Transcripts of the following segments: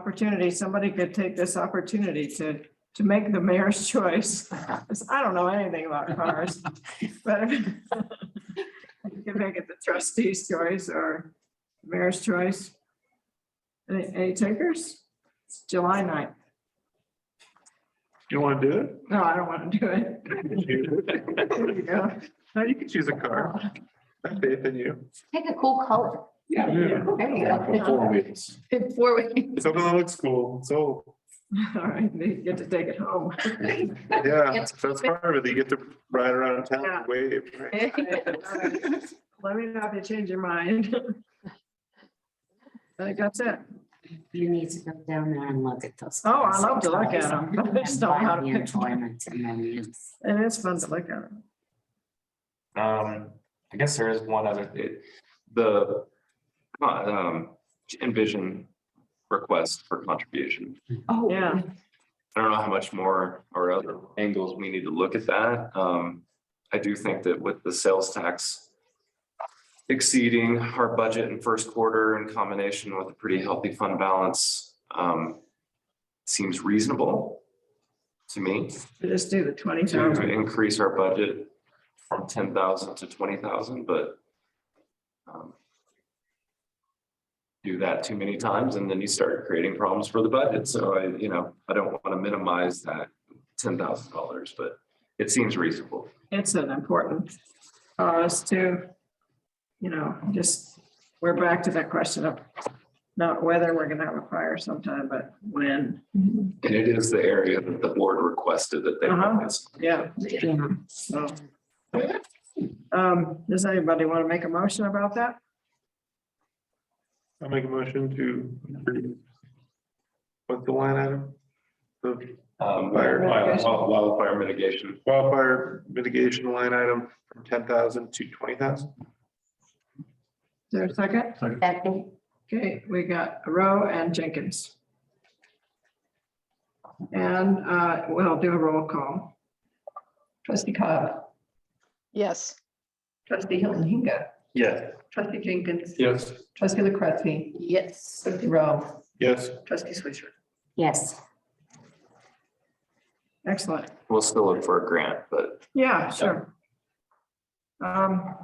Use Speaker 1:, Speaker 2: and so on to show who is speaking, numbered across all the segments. Speaker 1: opportunity, somebody could take this opportunity to, to make the mayor's choice. 'Cause I don't know anything about cars, but if- you can make it the trustee's choice or mayor's choice. Any, any takers? It's July 9th.
Speaker 2: You want to do
Speaker 1: No, I don't want to do it. There you
Speaker 2: it?
Speaker 1: go.
Speaker 2: No, you can choose a car. I have faith in you.
Speaker 3: Take a cool color.
Speaker 2: Yeah.
Speaker 3: There you go.
Speaker 4: wheels.
Speaker 3: Four wheels.
Speaker 2: Something that looks cool. So,
Speaker 1: All right, you get to take it home.
Speaker 2: yeah, that's part of it. You get to ride around town and wave. right?
Speaker 1: Let me know if you change your mind. I think that's it.
Speaker 5: You need to go down there and look at those.
Speaker 1: Oh, I
Speaker 5: classic
Speaker 1: love to look at
Speaker 5: toys.
Speaker 1: 'em. I just
Speaker 5: And
Speaker 1: don't know how to
Speaker 5: find the
Speaker 1: pick one.
Speaker 5: Enjoyment and then use.
Speaker 1: It is fun to look at.
Speaker 4: Um, I guess there is one other, it, the, uh, um, envision request for contribution.
Speaker 3: Oh,
Speaker 1: Yeah.
Speaker 4: I don't know how much more or other angles we need to look at that. Um, I do think that with the sales tax exceeding our budget in first quarter in combination with a pretty healthy fund balance, um, seems reasonable to me
Speaker 1: We Just do the twenty
Speaker 4: to
Speaker 1: thousand.
Speaker 4: increase our budget from ten thousand to twenty thousand, but um, do that too many times and then you start creating problems for the budget. So I, you know, I don't want to minimize that ten thousand dollars, but it seems reasonable.
Speaker 1: It's an important cause to, you know, just, we're back to that question of not whether we're gonna have a fire sometime, but when.
Speaker 4: And it is the area that the board requested that they
Speaker 1: Uh-huh.
Speaker 4: focus.
Speaker 1: Yeah,
Speaker 5: Yeah.
Speaker 1: so. Um, does anybody want to make a motion about that?
Speaker 2: I'll make a motion to. What's the line item? The
Speaker 4: Um,
Speaker 2: Fire-
Speaker 4: wild- wild- wildfire mitigation.
Speaker 2: wildfire mitigation line item from ten thousand to twenty thousand?
Speaker 1: Is there a second?
Speaker 3: Second.
Speaker 1: Okay, we got Rowe and Jenkins. And, uh, we'll do a roll call. Trustee Cobb,
Speaker 6: Yes.
Speaker 1: trustee Hilton Hinga,
Speaker 2: Yes.
Speaker 1: trustee Jenkins,
Speaker 2: Yes.
Speaker 1: trustee LaCretti,
Speaker 6: Yes.
Speaker 1: trustee Rowe,
Speaker 2: Yes.
Speaker 1: trustee Swisher.
Speaker 5: Yes,
Speaker 1: Excellent.
Speaker 4: We'll still look for a grant, but
Speaker 1: Yeah, sure. Um,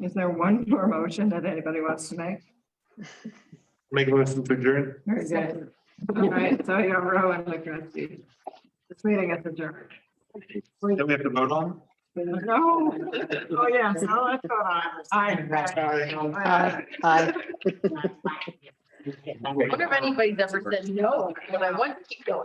Speaker 1: is there one more motion that anybody wants to make?
Speaker 2: Make a motion to adjourn?
Speaker 1: Very good. All right, so you have Rowe and LaCretti. This meeting is adjourned.
Speaker 2: Don't we have to vote on?
Speaker 1: No. Oh, yeah. Oh, that's what I- I- I-
Speaker 6: I
Speaker 5: Yes.
Speaker 6: wonder if anybody's ever said no, but I want to keep going.